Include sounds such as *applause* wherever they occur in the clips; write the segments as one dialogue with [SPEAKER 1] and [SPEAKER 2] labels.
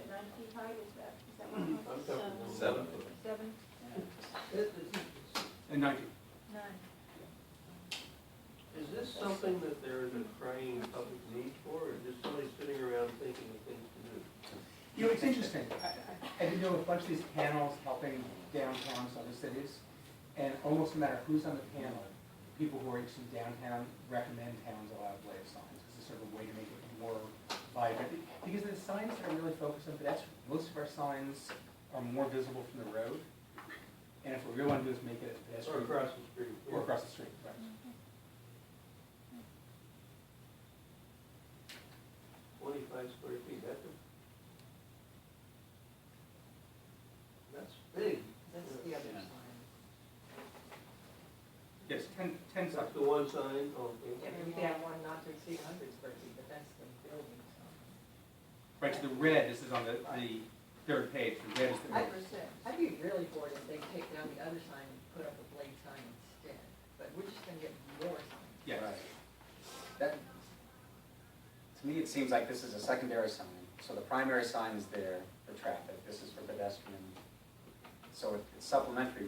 [SPEAKER 1] tonight, is that, is that what
[SPEAKER 2] Mm-hmm.
[SPEAKER 1] it was?
[SPEAKER 3] Seven.
[SPEAKER 4] Um,
[SPEAKER 1] Seven,
[SPEAKER 2] Is
[SPEAKER 5] And nineteen.
[SPEAKER 1] nine.
[SPEAKER 2] is this something that there is a crying public need for, or just somebody sitting around thinking of things to do?
[SPEAKER 5] You know, it's interesting, I, I, I did do a bunch of these panels helping downtowns, other cities, and almost no matter who's on the panel, people who are interested in downtown recommend towns allow blade signs, it's a sort of way to make it more vibrant. Because the signs that are really focused on, that's, most of our signs are more visible from the road, and if we really want to do is make it a
[SPEAKER 2] Or
[SPEAKER 5] pedestrian.
[SPEAKER 2] across the street? yeah.
[SPEAKER 5] Or across the street, right.
[SPEAKER 2] Twenty-five square feet, that's a... That's big.
[SPEAKER 4] That's the other sign.
[SPEAKER 5] Yes, ten, ten signs.
[SPEAKER 2] That's the one sign, okay.
[SPEAKER 4] Yeah, we have one not to exceed hundred square feet, but that's the building sign.
[SPEAKER 5] Right, so the red, this is on the, the third page, the red is the.
[SPEAKER 4] I-
[SPEAKER 1] Number six.
[SPEAKER 4] I'd be really bored if they take down the other sign and put up a blade sign instead, but we're just gonna get more signs.
[SPEAKER 5] Yes.
[SPEAKER 6] Right. That, to me, it seems like this is a secondary sign. So the primary sign is there for traffic, this is for pedestrian. So it- it's supplementary,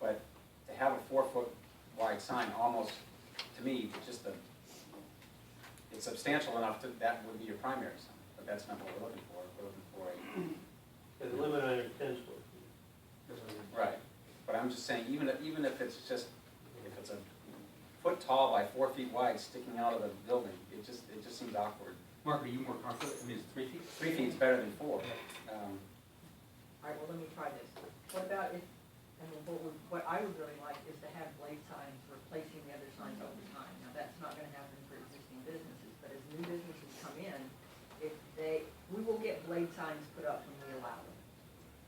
[SPEAKER 6] but to have a four-foot wide sign almost, to me, just the, it's substantial enough that that would be your primary sign, but that's not what we're looking for. We're looking for a
[SPEAKER 2] And the limit on it is ten square feet.
[SPEAKER 5] That's what I mean.
[SPEAKER 6] Right, but I'm just saying, even if, even if it's just, if it's a foot tall by four feet wide sticking out of the building, it just, it just seems awkward.
[SPEAKER 5] Mark, are you more comfortable, I mean, it's three feet?
[SPEAKER 6] Three feet's better than four. Um,
[SPEAKER 4] All right, well, let me try this. What about if, I mean, what would, what I would really like is to have blade signs replacing the other signs over time. Now, that's not gonna happen for existing businesses, but as new businesses come in, if they, we will get blade signs put up when we allow them.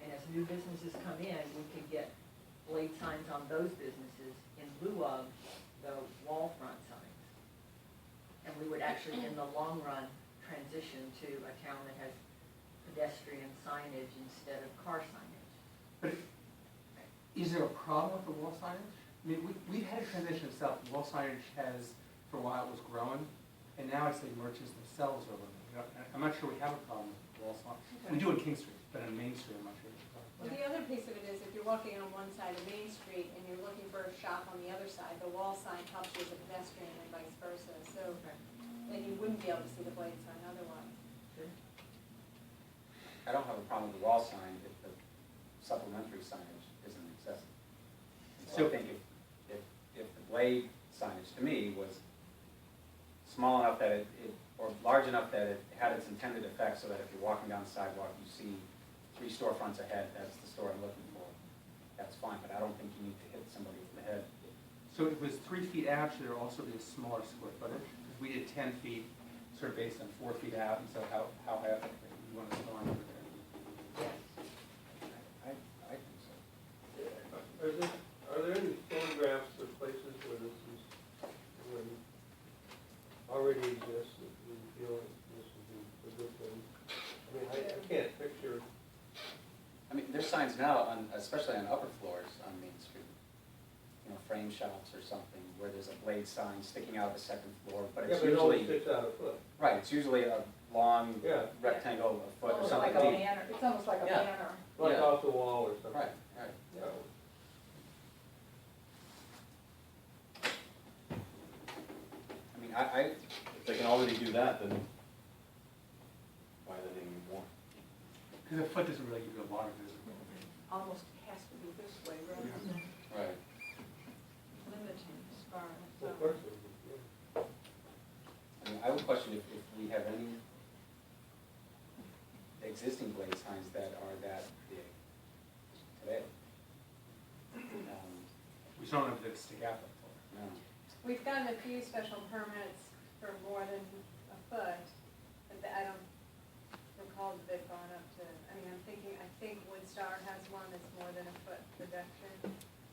[SPEAKER 4] And as new businesses come in, we could get blade signs on those businesses in lieu of the wall front signs. And we would actually, in the long run, transition to a town that has pedestrian signage instead of car signage.
[SPEAKER 5] But is there a problem with the wall signage? I mean, we, we've had a transition itself, wall signage has, for a while it was growing, and now I'd say merchants themselves are limited. I'm not sure we have a problem with wall sign, we do on King Street, but on Main Street, I'm not sure. we have a problem.
[SPEAKER 1] Well, the other piece of it is if you're walking on one side of Main Street and you're looking for a shop on the other side, the wall sign helps you as a pedestrian and vice versa. So then you wouldn't be able to see the blade sign otherwise.
[SPEAKER 6] I don't have a problem with the wall sign if the supplementary signage isn't excessive. So I
[SPEAKER 5] So-
[SPEAKER 6] think if, if, if the blade signage to me was small enough that it, it- or large enough that it had its intended effect so that if you're walking down the sidewalk, you see three storefronts ahead, that's the store I'm looking for, that's fine, but I don't think you need to hit somebody in the head.
[SPEAKER 5] So it was three feet out, should there also be a smaller square footage? 'Cause We did ten feet, sort of based on four feet out, and so how, how high up, you want to go on over there?
[SPEAKER 4] Yes.
[SPEAKER 6] I, I think so.
[SPEAKER 2] Are there, are there any photographs of places where this is, where it already exists, that you feel that this would be a good thing? I mean, I, I can't picture,
[SPEAKER 6] I mean, there's signs now, on, especially on upper floors on Main Street, you know, frame shops or something, where there's a blade sign sticking out of the second floor, but
[SPEAKER 2] yeah,
[SPEAKER 6] it's
[SPEAKER 2] but it only
[SPEAKER 6] usually,
[SPEAKER 2] sticks out a foot,
[SPEAKER 6] right, it's usually a long
[SPEAKER 2] yeah,
[SPEAKER 6] rectangle, a foot or
[SPEAKER 4] Almost Oh, like
[SPEAKER 6] something
[SPEAKER 4] a
[SPEAKER 6] deep.
[SPEAKER 4] banner.
[SPEAKER 1] It's almost like a
[SPEAKER 6] Yeah.
[SPEAKER 1] banner.
[SPEAKER 2] like
[SPEAKER 6] Yeah.
[SPEAKER 2] off the wall or something.
[SPEAKER 6] Right, right.
[SPEAKER 2] Yeah.
[SPEAKER 6] I mean, I, I,
[SPEAKER 7] If they can already do that, then why do they need more?
[SPEAKER 5] Because a foot doesn't really give you a lot of visibility.
[SPEAKER 4] Almost has to be this way rather than
[SPEAKER 6] right.
[SPEAKER 4] limiting as far as.
[SPEAKER 2] Well,
[SPEAKER 1] um,
[SPEAKER 2] Of course, it would be, yeah.
[SPEAKER 6] I mean, I would question if, if we have any existing blade signs that are that big today. Um,
[SPEAKER 5] We don't have to stick out that far.
[SPEAKER 6] No.
[SPEAKER 1] We've gotten a few special permits for more than a foot, but I don't recall that they've gone up to, I mean, I'm thinking, I think Woodstar has one that's more than a foot reduction,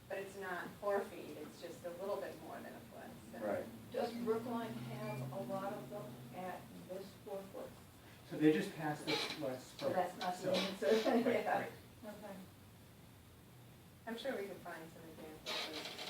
[SPEAKER 1] but it's not four feet, it's just a little bit more than a foot, so.
[SPEAKER 6] Right.
[SPEAKER 4] Does Brookline have a lot of them at this four foot?
[SPEAKER 5] So they just passed this last spring.
[SPEAKER 4] That's not
[SPEAKER 5] so-
[SPEAKER 4] the answer, *laughs*
[SPEAKER 5] right,
[SPEAKER 4] yeah.
[SPEAKER 5] right.
[SPEAKER 1] Okay. I'm sure we could find some examples of